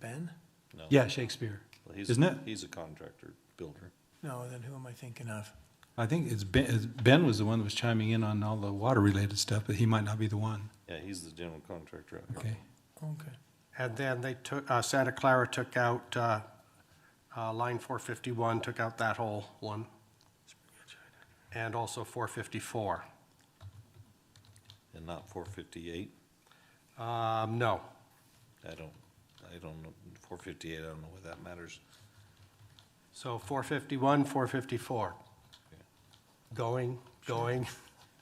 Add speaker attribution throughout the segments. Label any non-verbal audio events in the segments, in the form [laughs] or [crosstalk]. Speaker 1: Ben?
Speaker 2: No.
Speaker 3: Yeah, Shakespeare,
Speaker 2: Well, he's-
Speaker 3: isn't it?
Speaker 2: He's a contractor, builder.
Speaker 1: No, then who am I thinking of?
Speaker 3: I think it's Ben, it's- Ben was the one that was chiming in on all the water-related stuff, but he might not be the one.
Speaker 2: Yeah, he's the general contractor out here.
Speaker 3: Okay.
Speaker 1: Okay.
Speaker 4: And then they took, uh, Santa Clara took out, uh, uh, line four fifty-one, took out that whole one. And also four fifty-four.
Speaker 2: And not four fifty-eight?
Speaker 4: Um, no,
Speaker 2: I don't, I don't know, four fifty-eight, I don't know what that matters.
Speaker 4: so four fifty-one, four fifty-four. Going, going,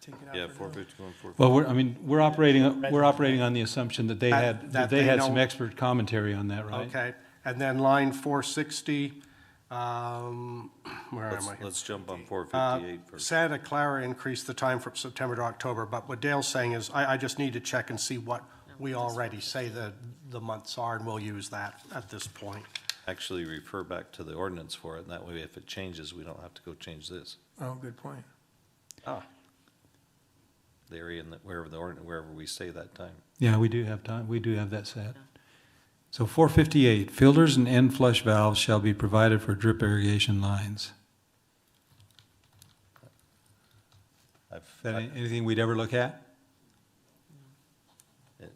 Speaker 1: Take it out.
Speaker 2: Yeah,
Speaker 1: for
Speaker 2: four
Speaker 1: now.
Speaker 2: fifty-one, four fifty.
Speaker 3: Well, we're, I mean, we're operating, we're operating on the assumption that they
Speaker 4: That-
Speaker 3: had, that
Speaker 4: that
Speaker 3: they
Speaker 4: they
Speaker 3: had some
Speaker 4: know-
Speaker 3: expert commentary on that, right?
Speaker 4: okay. And then line four sixty, um, where am
Speaker 2: Let's,
Speaker 4: I?
Speaker 2: let's jump on four
Speaker 4: Uh,
Speaker 2: fifty-eight first.
Speaker 4: Santa Clara increased the time from September to October, but what Dale's saying is, I, I just need to check and see what we already say the, the months are, and we'll use that at this point.
Speaker 2: Actually refer back to the ordinance for it, and that way if it changes, we don't have to go change this.
Speaker 1: Oh, good point.
Speaker 2: The area in the, wherever the ordinance, wherever we say that time.
Speaker 3: Yeah, we do have time, we do have that set. So four fifty-eight, filters and end flush valves shall be provided for drip irrigation lines.
Speaker 2: I've,
Speaker 3: Is that
Speaker 2: I-
Speaker 3: any- anything we'd ever look at?
Speaker 2: No.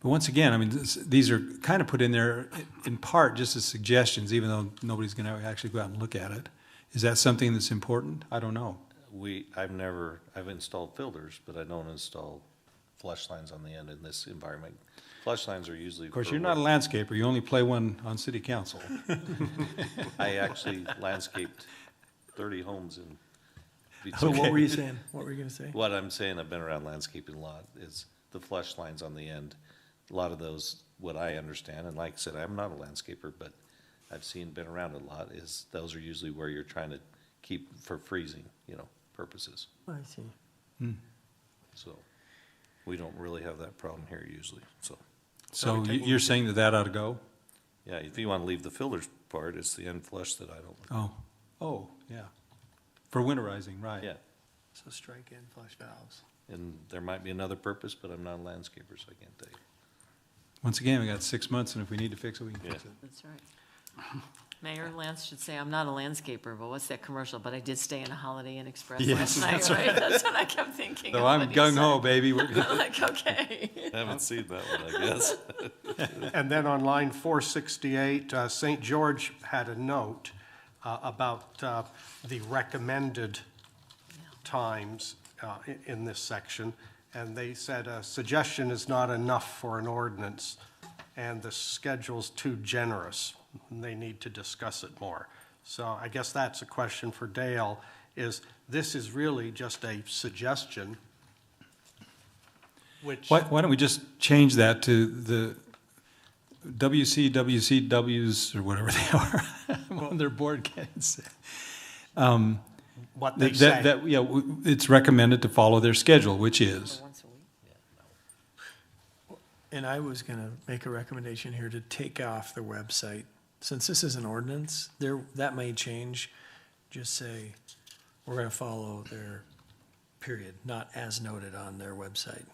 Speaker 3: But once again, I mean, this, these are kind of put in there in part just as suggestions, even though nobody's gonna actually go out and look at it. Is that something that's important? I don't know.
Speaker 2: we, I've never, I've installed filters, but I don't install flush lines on the end in this environment. Flush lines are usually.
Speaker 3: Of course, you're not a landscaper, you only play one on city council.
Speaker 2: I actually landscaped thirty homes in.
Speaker 1: So
Speaker 2: between-
Speaker 1: what were you saying? What were you gonna say?
Speaker 2: What I'm saying, I've been around landscaping a lot, is the flush lines on the end. A lot of those, what I understand, and like I said, I'm not a landscaper, but I've seen, been around a lot, is those are usually where you're trying to keep for freezing, you know, purposes.
Speaker 1: I see.
Speaker 2: So we don't really have that problem here usually, so.
Speaker 3: So you- you're saying that that ought to go?
Speaker 2: Yeah, if you want to leave the filters part, it's the end flush that I don't,
Speaker 3: Oh, oh, yeah. For winterizing, right.
Speaker 2: yeah.
Speaker 1: So strike in flush valves.
Speaker 2: And there might be another purpose, but I'm not a landscaper, so I can't tell you.
Speaker 3: Once again, we got six months, and if we need to fix it, we can fix it.
Speaker 5: That's right. Mayor Lance should say, I'm not a landscaper, but what's that commercial? But I did stay in a Holiday Inn Express
Speaker 3: Yes,
Speaker 5: last night, right? That's what I kept thinking.
Speaker 3: So
Speaker 5: of
Speaker 3: I'm
Speaker 5: when he
Speaker 3: gung ho,
Speaker 5: said
Speaker 3: baby, we're
Speaker 5: [laughs] it. I'm like, okay.
Speaker 2: I haven't seen that one, I guess.
Speaker 4: And then on line four sixty-eight, uh, St. George had a note, uh, about, uh, the recommended times, uh, i- in this section. And they said a suggestion is not enough for an ordinance, and the schedule's too generous. and They need to discuss it more. So I guess that's a question for Dale, is this is really just a suggestion, which.
Speaker 3: Why, why don't we just change that to the WCWCWs or whatever they
Speaker 4: [laughs]
Speaker 3: are on their board can't
Speaker 4: what they
Speaker 3: That,
Speaker 4: say.
Speaker 3: that, yeah, w- it's recommended to follow their schedule, which is,
Speaker 5: Once a week.
Speaker 1: And I was gonna make a recommendation here to take off the website. Since this is an ordinance, there, that may change. Just say, we're gonna follow their period, not as noted on their website.
Speaker 2: [laughs]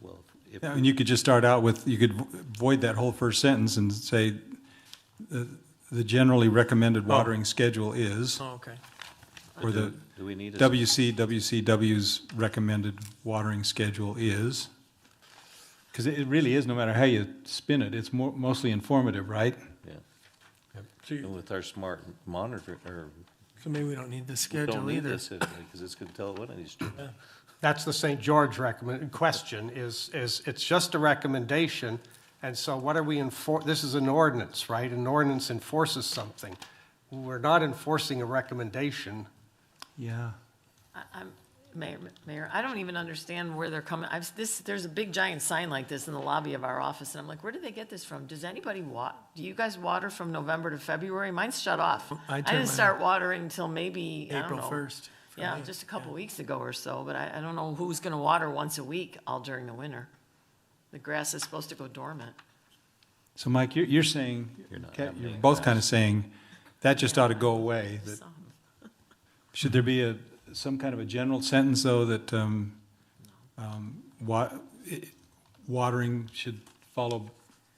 Speaker 2: Well, if,
Speaker 3: Yeah, and you could just start out with, you could vo- void that whole first sentence and say, the, the generally
Speaker 4: Oh.
Speaker 3: recommended watering schedule is,
Speaker 1: Oh, okay.
Speaker 3: or the
Speaker 2: do we need a?
Speaker 3: WCWCW's recommended watering schedule is. Because it it really is, no matter how you spin it, it's more, mostly informative, right?
Speaker 2: Yeah,
Speaker 1: So
Speaker 2: and
Speaker 1: you,
Speaker 2: with our smart monitor, or,
Speaker 1: so maybe we don't need the
Speaker 2: we don't
Speaker 1: schedule
Speaker 2: need
Speaker 1: either.
Speaker 2: this, because it's gonna tell what it needs to. do.
Speaker 4: That's the St. George recommend, question is, is it's just a recommendation. And so what are we enfor, this is an ordinance, right? An ordinance enforces something. We're not enforcing a recommendation.
Speaker 3: Yeah.
Speaker 5: I- I'm, Mayor, Mayor, I don't even understand where they're coming, I've, this, there's a big giant sign like this in the lobby of our office, and I'm like, where did they get this from? Does anybody wa, do you guys water from November to February? Mine's shut
Speaker 1: I
Speaker 5: off. I
Speaker 1: turn mine
Speaker 5: didn't start watering until maybe, I don't
Speaker 1: April
Speaker 5: know,
Speaker 1: 1st for
Speaker 5: Yeah,
Speaker 1: me,
Speaker 5: just a couple weeks ago or so, but I, I don't know who's gonna water once a week all during the winter. The grass is supposed to go dormant.
Speaker 3: So Mike, you're, you're saying,
Speaker 2: You're not
Speaker 3: Kat, you're
Speaker 2: happening.
Speaker 3: both kind of saying, that just ought to go away. that-
Speaker 5: So,
Speaker 3: Should there be a, some kind of a general sentence, though, that, um, um, wa, i- watering should follow